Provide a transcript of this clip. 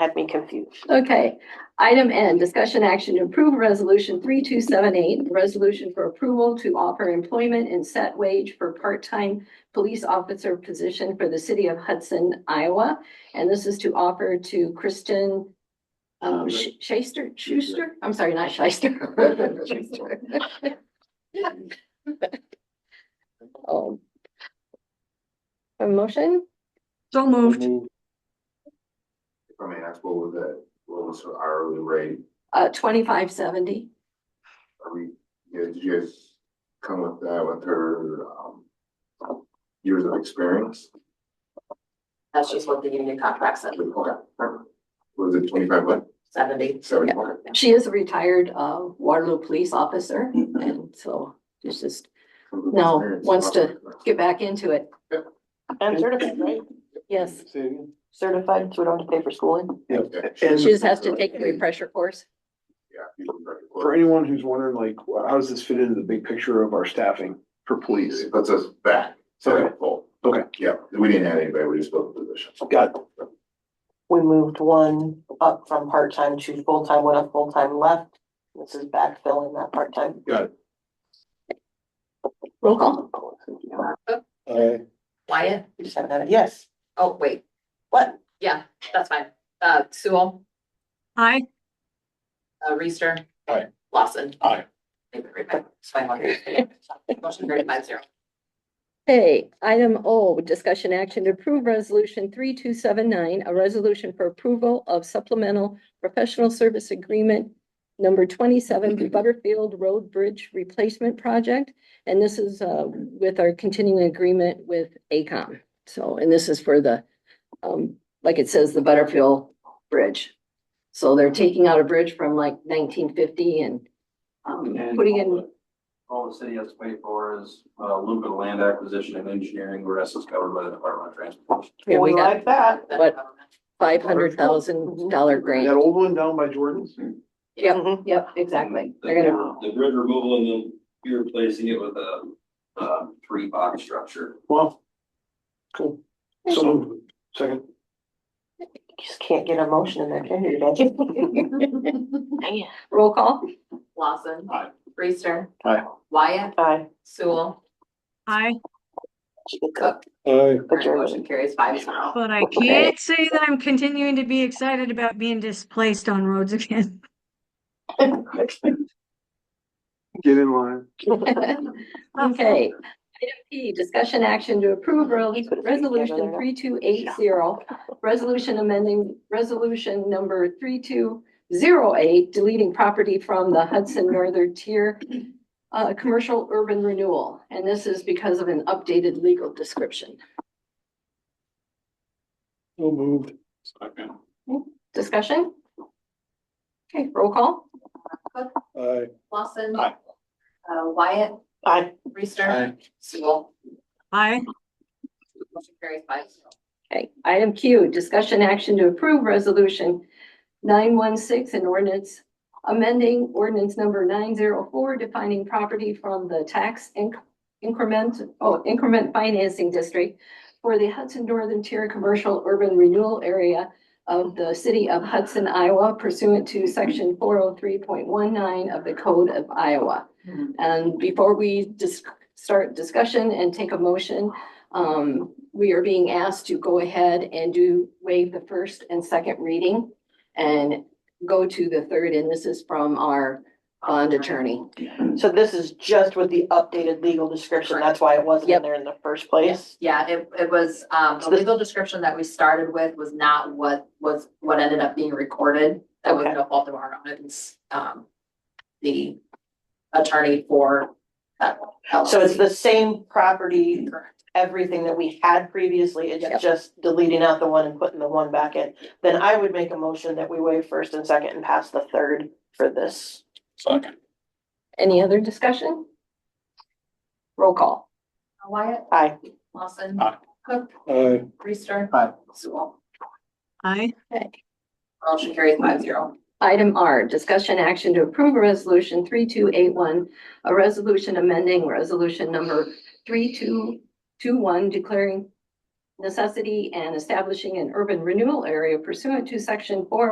had me confused. Okay, item N, discussion action to approve resolution three two seven eight, resolution for approval to offer employment and set wage for part-time police officer position for the city of Hudson, Iowa. And this is to offer to Kristen um, Sh- Schaster, Schuster? I'm sorry, not Shyster. Schuster. Um, A motion? So moved. If I may ask, what was the, what was the hourly rate? Uh, twenty-five seventy. Are we, you know, did you guys come with that with her, um, years of experience? That's just what the union contract said, Was it twenty-five, what, seventy. seventy? She is a retired uh Waterloo police officer and so she's just No, wants to- get back into it. And certified, right? Yes, Certified, so we don't have to pay for schooling. And she just has to take the pressure course. Yeah. you can write it. for anyone who's wondering, like, wh- how does this fit into the big picture of our staffing for police? It puts us back, Okay. so, full. Okay. yeah, we didn't add anybody, we just built the position. Got it. We moved one up from part-time to full-time, one up full-time left. This is backfilling that part-time. Roll call. uh, Wyatt? You said that, yes. Oh, wait, What? yeah, that's fine. Uh, Sewell, Hi. uh, Reister. Aye. Lawson. Aye. Motion carried five zero. Hey, item O, discussion action to approve resolution three two seven nine, a resolution for approval of supplemental professional service agreement number twenty-seven Butterfield Road Bridge Replacement Project. And this is uh with our continuing agreement with ACOM. So, and this is for the, um, like it says, the Butterfield Bridge. So they're taking out a bridge from like nineteen fifty and um, And putting all in, the- All the city has to pay for is uh, a little bit of land acquisition and engineering, the rest is covered by the Department of Transportation. yeah, we We got like that. What? five hundred thousand dollar grant. That old one down by Jordan's? Yep. Mm-hmm. Mhm. Yep, exactly. The- They're gonna, The grid removal and then you're replacing it with a, uh tree box structure. Well. Cool. So moved. Second. Just can't get a motion in there, can you? Becky? roll call? Lawson. Aye. Reister. Aye. Wyatt, Aye. Sewell, Hi, Cook. Aye. But you're- Motion carries five zero. but I Okay. can't say that I'm continuing to be excited about being displaced on roads again. Get in line. Okay. Item P, discussion action to approve rel- resolution three two eight zero, resolution amending resolution number three two zero eight, deleting property from the Hudson Northern Tier uh, commercial urban renewal, and this is because of an updated legal description. So moved. Discussion? Okay, roll call? Aye. Lawson. Aye. Uh, Wyatt, Aye. Reister. Sewell. Hi, Motion carries five zero. Okay, item Q, discussion action to approve resolution nine one six and ordinance amending ordinance number nine zero four defining property from the tax inc- increment, oh, increment financing district for the Hudson Northern Tier Commercial Urban Renewal Area of the city of Hudson, Iowa pursuant to section four oh three point one nine of the Code of Iowa. And before we just start discussion and take a motion, um, we are being asked to go ahead and do waive the first and second reading and go to the third, and this is from our bond attorney. So this is just with the updated legal description. That's why it wasn't Yep. in there in the first place. Yeah, it, it was, um, the legal description that we started with was not what was, what ended up being recorded. That was Okay. no fault of our own, it's, um, the attorney for that. So it's the same property Correct. everything that we had previously, Yep. it's just deleting out the one and putting the one back in. Then I would make a motion that we waive first and second and pass the third for this. Any other discussion? Roll call. Wyatt, Aye. Lawson. Aye. Cook, Aye. Reister. Aye. Sewell. hi, Motion carries five zero. Item R, discussion action to approve resolution three two eight one, a resolution amending resolution number three two two one declaring necessity and establishing an urban renewal area pursuant to section four